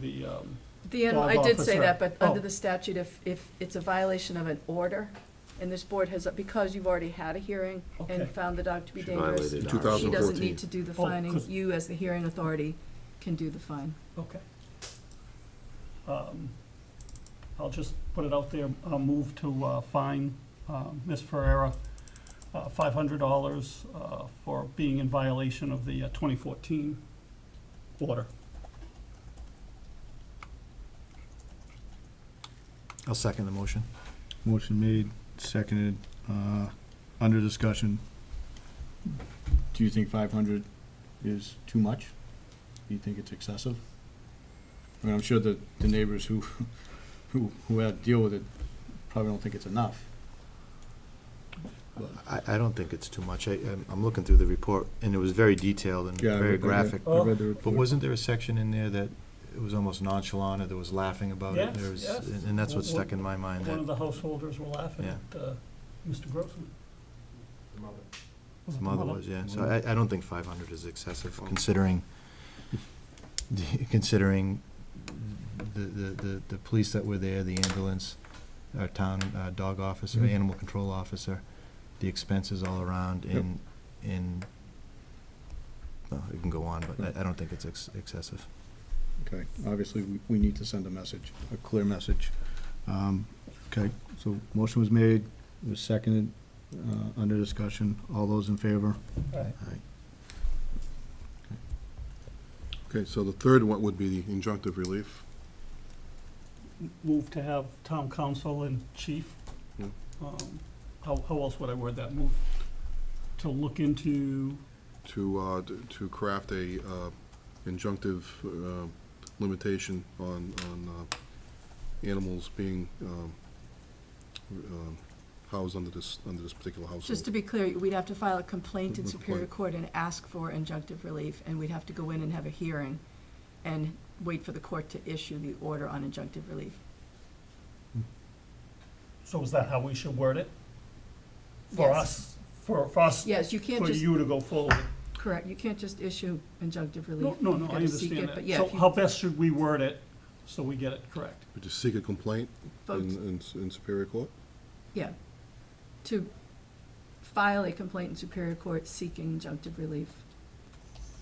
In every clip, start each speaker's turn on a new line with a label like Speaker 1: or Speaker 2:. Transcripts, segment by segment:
Speaker 1: the, um,
Speaker 2: The, end-
Speaker 1: Dog
Speaker 2: I did say
Speaker 1: officer.
Speaker 2: that, but under
Speaker 1: Oh.
Speaker 2: the statute, if, if it's a violation of an order, and this board has, because you've already had a hearing
Speaker 1: Okay.
Speaker 2: and found the dog to be
Speaker 3: She
Speaker 2: dangerous,
Speaker 3: violated
Speaker 4: Two
Speaker 3: ours.
Speaker 4: thousand-
Speaker 2: she doesn't
Speaker 4: 2014.
Speaker 2: need to do the
Speaker 1: Oh,
Speaker 2: fining.
Speaker 1: 'cause-
Speaker 2: You, as the hearing authority, can do the fine.
Speaker 1: okay. Um, I'll just put it out there, uh, move to, uh, fine, uh, Ms. Ferrera, uh, five hundred dollars, uh, for being in violation of the uh, twenty fourteen order.
Speaker 5: I'll second the motion.
Speaker 4: Motion made, seconded, uh, under discussion. Do you think five hundred is too much? Do you think it's excessive? I mean, I'm sure that the neighbors who, who, who had to deal with it probably don't think it's enough.
Speaker 5: I, I don't think it's too much. I, I'm- I'm looking through the report, and it was very detailed and
Speaker 4: Yeah, I
Speaker 5: very
Speaker 4: read- I read-
Speaker 5: graphic.
Speaker 1: oh.
Speaker 4: I read the
Speaker 5: But
Speaker 4: report.
Speaker 5: wasn't there a section in there that it was almost nonchalant, or there was laughing about it?
Speaker 1: Yes,
Speaker 5: There was-
Speaker 1: yes.
Speaker 5: And and that's what
Speaker 1: Well,
Speaker 5: stuck in my mind,
Speaker 1: One of
Speaker 5: that
Speaker 1: the householders were laughing at, uh, Mr. Grossman. Was it
Speaker 5: the mother was, yeah. So I, I don't think five hundred is excessive, considering, considering the, the, the, the police that were there, the ambulance, our town uh, dog officer,
Speaker 4: Mhm.
Speaker 5: animal control officer, the expenses all around
Speaker 4: Yep.
Speaker 5: in, in, well, it can go on, but I, I don't think it's ex- excessive.
Speaker 4: Okay, obviously, we, we need to send a message, a clear message. Um, okay, so motion was made, it was seconded, uh, under discussion. All those in favor?
Speaker 6: Okay, so the third one would be the injunctive relief.
Speaker 1: Move to have town council and chief,
Speaker 6: Yeah.
Speaker 5: Hmm.
Speaker 1: um, how, how else would I word that? Move to look into
Speaker 6: to, uh, d- to craft a uh, injunctive uh, limitation on, on uh, animals being um, um, housed under this, under this particular
Speaker 2: Just to
Speaker 6: household.
Speaker 2: be clear, we'd have to file a complaint in
Speaker 6: Good
Speaker 2: Superior
Speaker 6: point.
Speaker 2: Court and ask for injunctive relief, and we'd have to go in and have a hearing and wait for the court to issue the order on injunctive relief.
Speaker 1: So is that how we should word it? For
Speaker 2: Yes.
Speaker 1: us, for, for us,
Speaker 2: Yes, you can't
Speaker 1: for
Speaker 2: just,
Speaker 1: you to go forward?
Speaker 2: correct, you can't just issue injunctive
Speaker 1: No,
Speaker 2: relief.
Speaker 1: no, no,
Speaker 2: You've
Speaker 1: I
Speaker 2: gotta seek
Speaker 1: understand
Speaker 2: it, But
Speaker 1: that.
Speaker 2: yeah,
Speaker 1: So
Speaker 2: if you
Speaker 1: how best should we word it so we get it correct?
Speaker 6: Would you seek a complaint in,
Speaker 2: vote
Speaker 6: in in Superior Court?
Speaker 2: Yeah, to file a complaint in Superior Court seeking injunctive relief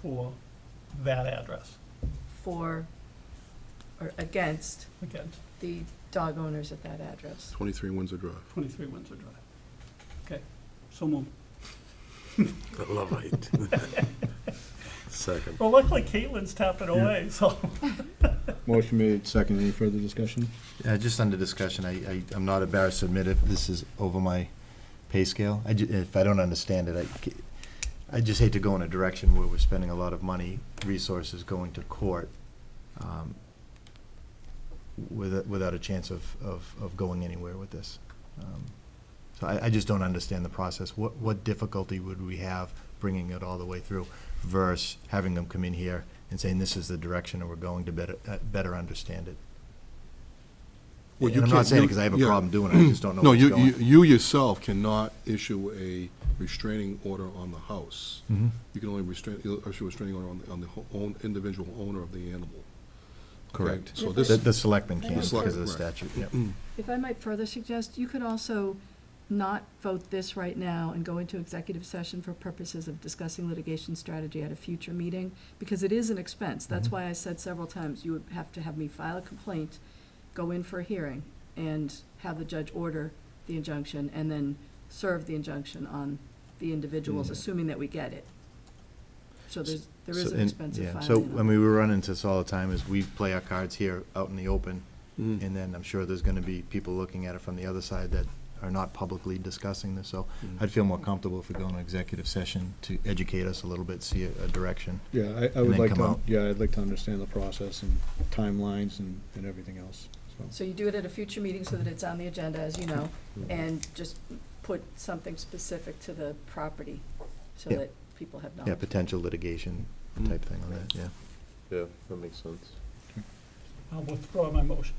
Speaker 1: For that address,
Speaker 2: for or against
Speaker 1: again,
Speaker 2: the dog owners at that address.
Speaker 6: 23 Windsor Drive.
Speaker 1: twenty-three Windsor Drive. Okay, so moved.
Speaker 3: Levite. Second.
Speaker 1: Well, luckily Caitlin's tapping away, so.
Speaker 4: Motion made, seconded. Any further discussion?
Speaker 5: Uh, just under discussion, I, I, I'm not embarrassed to admit it, this is over my pay scale. I ju- if I don't understand it, I, ca- I just hate to go in a direction where we're spending a lot of money, resources going to court, um, with, without a chance of, of, of going anywhere with this. Um, So I, I just don't understand the process. What, what difficulty would we have bringing it all the way through versus having them come in here and saying, this is the direction and we're going to better, uh, better understand it?
Speaker 6: Well,
Speaker 5: And
Speaker 6: you
Speaker 5: I'm not
Speaker 6: can't-
Speaker 5: saying it
Speaker 6: you-
Speaker 5: 'cause I have a
Speaker 6: yeah.
Speaker 5: problem doing it, I just don't know
Speaker 6: No,
Speaker 5: where it's
Speaker 6: you, you-
Speaker 5: going.
Speaker 6: you yourself cannot issue a restraining order on the house.
Speaker 5: Mm-hmm.
Speaker 6: You can only restrain, you'll issue a restraining order on, the- on the ho- own, individual owner of the animal. Okay,
Speaker 5: Correct.
Speaker 6: So
Speaker 5: The,
Speaker 6: this,
Speaker 5: the selectmen
Speaker 2: The
Speaker 5: can, because of the
Speaker 6: select-
Speaker 5: statute, yeah.
Speaker 2: Mm-hmm. If I might further suggest, you could also not vote this right now and go into executive session for purposes of discussing litigation strategy at a future meeting, because it is an expense. That's
Speaker 5: Mhm.
Speaker 2: why I said several times, you would have to have me file a complaint, go in for a hearing, and have the judge order the injunction, and then serve the injunction on the individuals,
Speaker 5: Yeah.
Speaker 2: assuming that we get it. So there's, there is
Speaker 5: So-
Speaker 2: an
Speaker 5: and-
Speaker 2: expensive
Speaker 5: yeah.
Speaker 2: filing.
Speaker 5: So,
Speaker 2: on
Speaker 5: I
Speaker 2: it.
Speaker 5: mean, we run into this all the time, is we play our cards here out in the open,
Speaker 6: Mm.
Speaker 5: and then I'm sure there's gonna be people looking at it from the other side that are not publicly discussing this, so
Speaker 6: Mm.
Speaker 5: I'd feel more comfortable if we go into executive session to educate us a little bit, see a, a direction.
Speaker 4: Yeah, I, I
Speaker 5: And
Speaker 4: would
Speaker 5: then
Speaker 4: like
Speaker 5: come
Speaker 4: to,
Speaker 5: out.
Speaker 4: yeah, I'd like to understand the process and timelines and, and everything else, so.
Speaker 2: So you do it at a future meeting so that it's on the agenda, as you know,
Speaker 3: Mm-hmm.
Speaker 6: Mhm.
Speaker 2: and just put something specific to the property so
Speaker 5: Yeah.
Speaker 2: that people have
Speaker 5: Yeah,
Speaker 2: knowledge.
Speaker 5: potential litigation
Speaker 6: mm,
Speaker 5: type thing on that, yeah.
Speaker 3: Yeah, that makes sense.
Speaker 1: I'll withdraw my motion.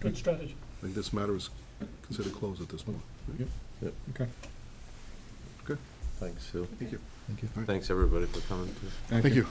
Speaker 1: Good strategy.
Speaker 6: I think this matter is considered closed at this point.
Speaker 4: Okay.
Speaker 2: Thanks, Sue.
Speaker 4: Thank you.
Speaker 7: Thank you.
Speaker 2: Thanks, everybody, for coming too.
Speaker 4: Thank you.